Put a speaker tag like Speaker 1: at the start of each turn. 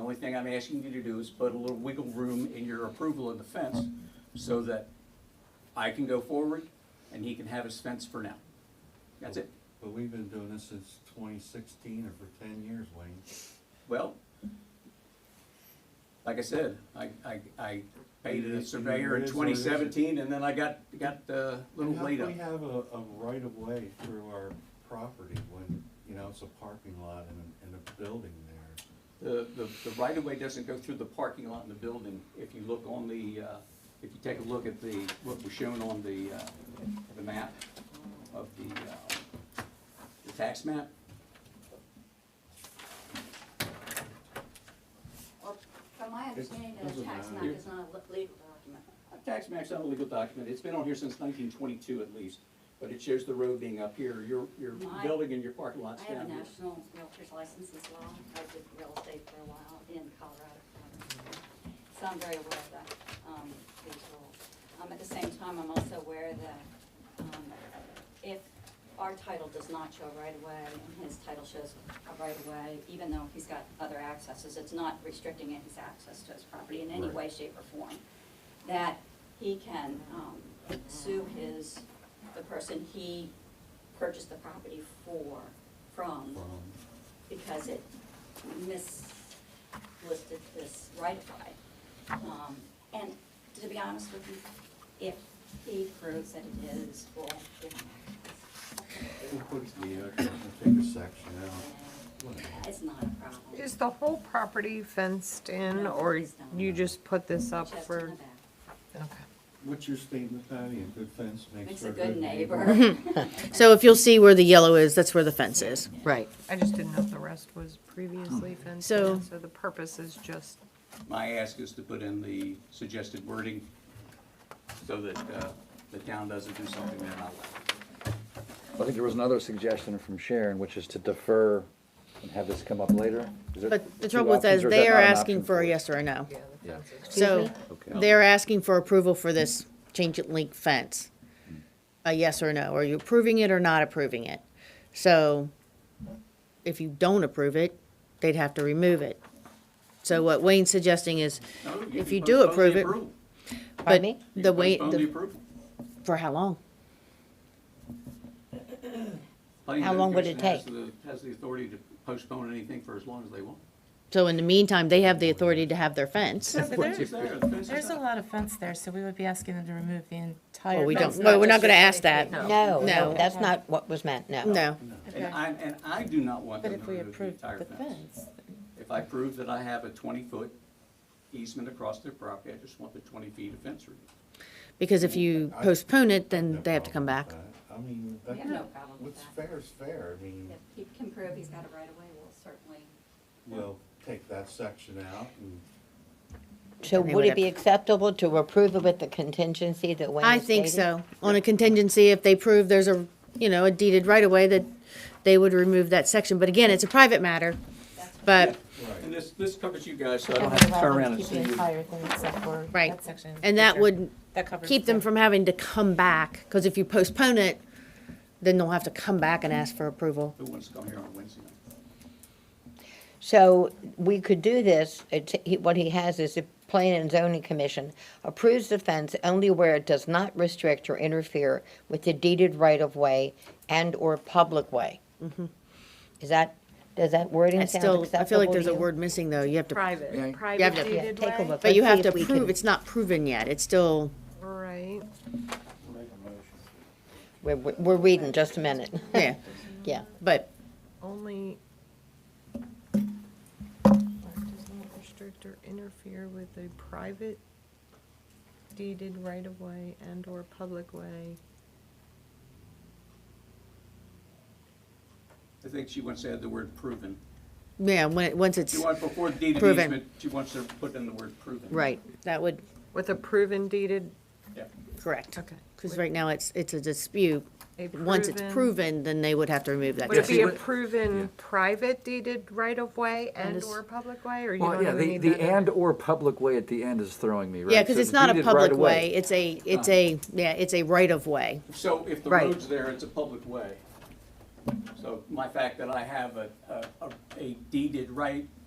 Speaker 1: only thing I'm asking you to do is put a little wiggle room in your approval of the fence so that I can go forward and he can have his fence for now. That's it.
Speaker 2: But we've been doing this since twenty sixteen or for ten years, Wayne.
Speaker 1: Well, like I said, I, I, I paid a surveyor in twenty seventeen and then I got, got a little
Speaker 2: And how
Speaker 1: laid
Speaker 2: can
Speaker 1: up.
Speaker 2: We have a, a right of way through our property when, you know, it's a parking lot and, and a building there.
Speaker 1: The, the, the right of way doesn't go through the parking lot in the building. If you look on the, uh, if you take a look at the, what was shown on the, uh, the map of the, uh, the tax map,
Speaker 3: Well, from my understanding,
Speaker 2: It
Speaker 3: a
Speaker 2: doesn't
Speaker 3: tax map
Speaker 2: matter.
Speaker 3: is not a le- legal document.
Speaker 1: a uh, tax map's not a legal document. It's been on here since nineteen twenty-two at least. But it shows the road being up here, your, your
Speaker 3: No, I-
Speaker 1: building and your parking lot's
Speaker 3: I have
Speaker 1: down
Speaker 3: a
Speaker 1: here.
Speaker 3: national realtor's license as well. I did real estate for a while in Colorado. So I'm very aware of that, um, these rules. Um, at the same time, I'm also aware that, um, if our title does not show right away and his title shows a right away, even though he's got other accesses, it's not restricting his access to his property in any way, shape, or form. That he can, um, sue his, the person he purchased the property for, from,
Speaker 2: From,
Speaker 3: because it mislisted this right of way. Um, and to be honest with you, if he proves that it is, we'll give him
Speaker 2: we'll put the, uh, we'll take a section out.
Speaker 3: access. And It's not a problem.
Speaker 4: Is the whole property fenced in, or you Mm-hmm. just put this up
Speaker 3: Just in
Speaker 4: for?
Speaker 3: the back.
Speaker 4: Okay.
Speaker 2: What's your statement, Patty? A good fence makes
Speaker 3: Makes
Speaker 2: for
Speaker 3: a good neighbor.
Speaker 5: So if you'll see where the yellow is, that's where the fence is.
Speaker 4: Right. I just didn't know if the rest was previously fenced
Speaker 5: Hmm. So-
Speaker 4: in, so the purpose is just,
Speaker 1: My ask is to put in the suggested wording so that uh, the town doesn't do something they're not allowed.
Speaker 6: I think there was another suggestion from Sharon, which is to defer and have this come up later. Is there
Speaker 5: But the
Speaker 6: two
Speaker 5: trouble with that is
Speaker 6: options, or
Speaker 5: they
Speaker 6: that
Speaker 5: are
Speaker 6: not an
Speaker 5: asking
Speaker 6: option
Speaker 5: for a
Speaker 6: you?
Speaker 5: yes or a no.
Speaker 4: yeah, the fence is.
Speaker 5: So
Speaker 6: Okay.
Speaker 5: they're asking for approval for this change it link fence. A yes or no. Are you approving it or not approving it? So if you don't approve it, they'd have to remove it. So what Wayne's suggesting is,
Speaker 1: No,
Speaker 5: If
Speaker 1: can
Speaker 5: you do
Speaker 1: postpone
Speaker 5: approve
Speaker 1: the
Speaker 5: it-
Speaker 1: approval.
Speaker 5: but
Speaker 4: Pardon me?
Speaker 1: You
Speaker 5: the
Speaker 1: can
Speaker 5: way,
Speaker 1: postpone the
Speaker 5: the-
Speaker 1: approval.
Speaker 5: for how long?
Speaker 1: Planning
Speaker 5: How long would it
Speaker 1: Commission has the- Has the authority to postpone anything for as long as they want.
Speaker 5: So in the meantime, they have the authority to have their fence.
Speaker 7: So, but
Speaker 1: Once
Speaker 7: there-
Speaker 1: it's there, the fence is
Speaker 7: There's a
Speaker 1: up.
Speaker 7: lot of fence there, so we would be asking them to remove the entire.
Speaker 5: Well, we
Speaker 7: fence,
Speaker 5: don't, no, we're not
Speaker 7: just
Speaker 5: gonna
Speaker 7: the
Speaker 5: ask
Speaker 7: 20
Speaker 5: that.
Speaker 7: feet.
Speaker 8: No,
Speaker 5: No.
Speaker 8: no, that's not what was meant, no.
Speaker 5: No.
Speaker 1: And
Speaker 7: Okay.
Speaker 1: I, and I do not want
Speaker 7: But
Speaker 1: them
Speaker 7: if
Speaker 1: to
Speaker 7: we
Speaker 1: remove the
Speaker 7: approved
Speaker 1: entire
Speaker 7: the
Speaker 1: fence.
Speaker 7: fence,
Speaker 1: If I prove that I have a twenty-foot easement across their property, I just want the twenty feet of fence removed.
Speaker 5: Because if you postpone it, then
Speaker 2: No
Speaker 5: they have to come
Speaker 2: problem
Speaker 5: back.
Speaker 2: with that. I mean,
Speaker 3: We have no
Speaker 2: that,
Speaker 3: problem with
Speaker 2: what's
Speaker 3: that.
Speaker 2: fair is fair. I mean,
Speaker 3: If he can prove he's got a right of way, we'll certainly
Speaker 2: we'll take that section out and
Speaker 8: So
Speaker 5: They
Speaker 8: would
Speaker 5: would
Speaker 8: it be
Speaker 5: have-
Speaker 8: acceptable to approve it with the contingency that Wayne
Speaker 5: I think so. On a contingency, if they prove there's a, you know, a deeded right away, that they would remove that section. But again, it's a private matter. But,
Speaker 1: And this, this covers you guys, so I don't have to turn around and
Speaker 7: Keep
Speaker 1: see
Speaker 7: the
Speaker 1: you.
Speaker 7: entire thing except for
Speaker 5: Right.
Speaker 7: that section in
Speaker 5: and
Speaker 7: the
Speaker 5: that
Speaker 7: future.
Speaker 5: would
Speaker 7: That covers
Speaker 5: keep them
Speaker 7: the-
Speaker 5: from having to come back, because if you postpone it, then they'll have to come back and ask for approval.
Speaker 1: Who wants to come here on Wednesday night?
Speaker 8: So we could do this, it's, he- what he has is the Plan and Zoning Commission approves the fence only where it does not restrict or interfere with the deeded right-of-way and/or public way. Is that, does that wording
Speaker 5: It's
Speaker 8: sound
Speaker 5: Mm-hmm. still,
Speaker 8: acceptable
Speaker 5: I feel like there's
Speaker 8: to
Speaker 5: a
Speaker 8: you?
Speaker 5: word missing, though. You have to,
Speaker 6: Yeah.
Speaker 4: Private,
Speaker 5: You
Speaker 4: private
Speaker 5: have to- Yeah,
Speaker 4: deeded
Speaker 8: take a
Speaker 4: way?
Speaker 8: look.
Speaker 5: but you
Speaker 8: Let's
Speaker 5: have
Speaker 8: see
Speaker 5: to
Speaker 8: if we
Speaker 5: prove,
Speaker 8: can-
Speaker 5: it's not proven yet. It's still,
Speaker 4: Right.
Speaker 8: We're, we're we're reading, just a minute,
Speaker 5: yeah,
Speaker 8: yeah.
Speaker 5: but
Speaker 4: Only. Does not restrict or interfere with a private deeded right of way and or public way.
Speaker 1: I think she wants to add the word proven.
Speaker 5: Yeah, when, it- once it's,
Speaker 1: She wants, before deed of
Speaker 5: Proven.
Speaker 1: easement, she wants to put in the word proven.
Speaker 5: right, that would,
Speaker 4: With a proven deeded,
Speaker 1: Yeah.
Speaker 5: correct.
Speaker 4: okay.
Speaker 5: Because right now, it's, it's a dispute. Once it's proven, then they would have to remove that
Speaker 4: Would it
Speaker 5: section.
Speaker 4: be a proven private deeded right of way and or public way, or you
Speaker 6: Well,
Speaker 4: don't
Speaker 6: yeah,
Speaker 4: even
Speaker 6: the,
Speaker 4: need
Speaker 6: the
Speaker 4: that? in there?
Speaker 6: and/or public way at the end is throwing me, right?
Speaker 5: Yeah, because
Speaker 6: So
Speaker 5: it's not a
Speaker 6: deeded Uh-huh. right
Speaker 5: public
Speaker 6: away.
Speaker 5: way, it's a, it's a, yeah, it's a right of way.
Speaker 1: So if the
Speaker 5: Right.
Speaker 1: road's there, it's a public way. So my fact that I have a, a- a, a deeded right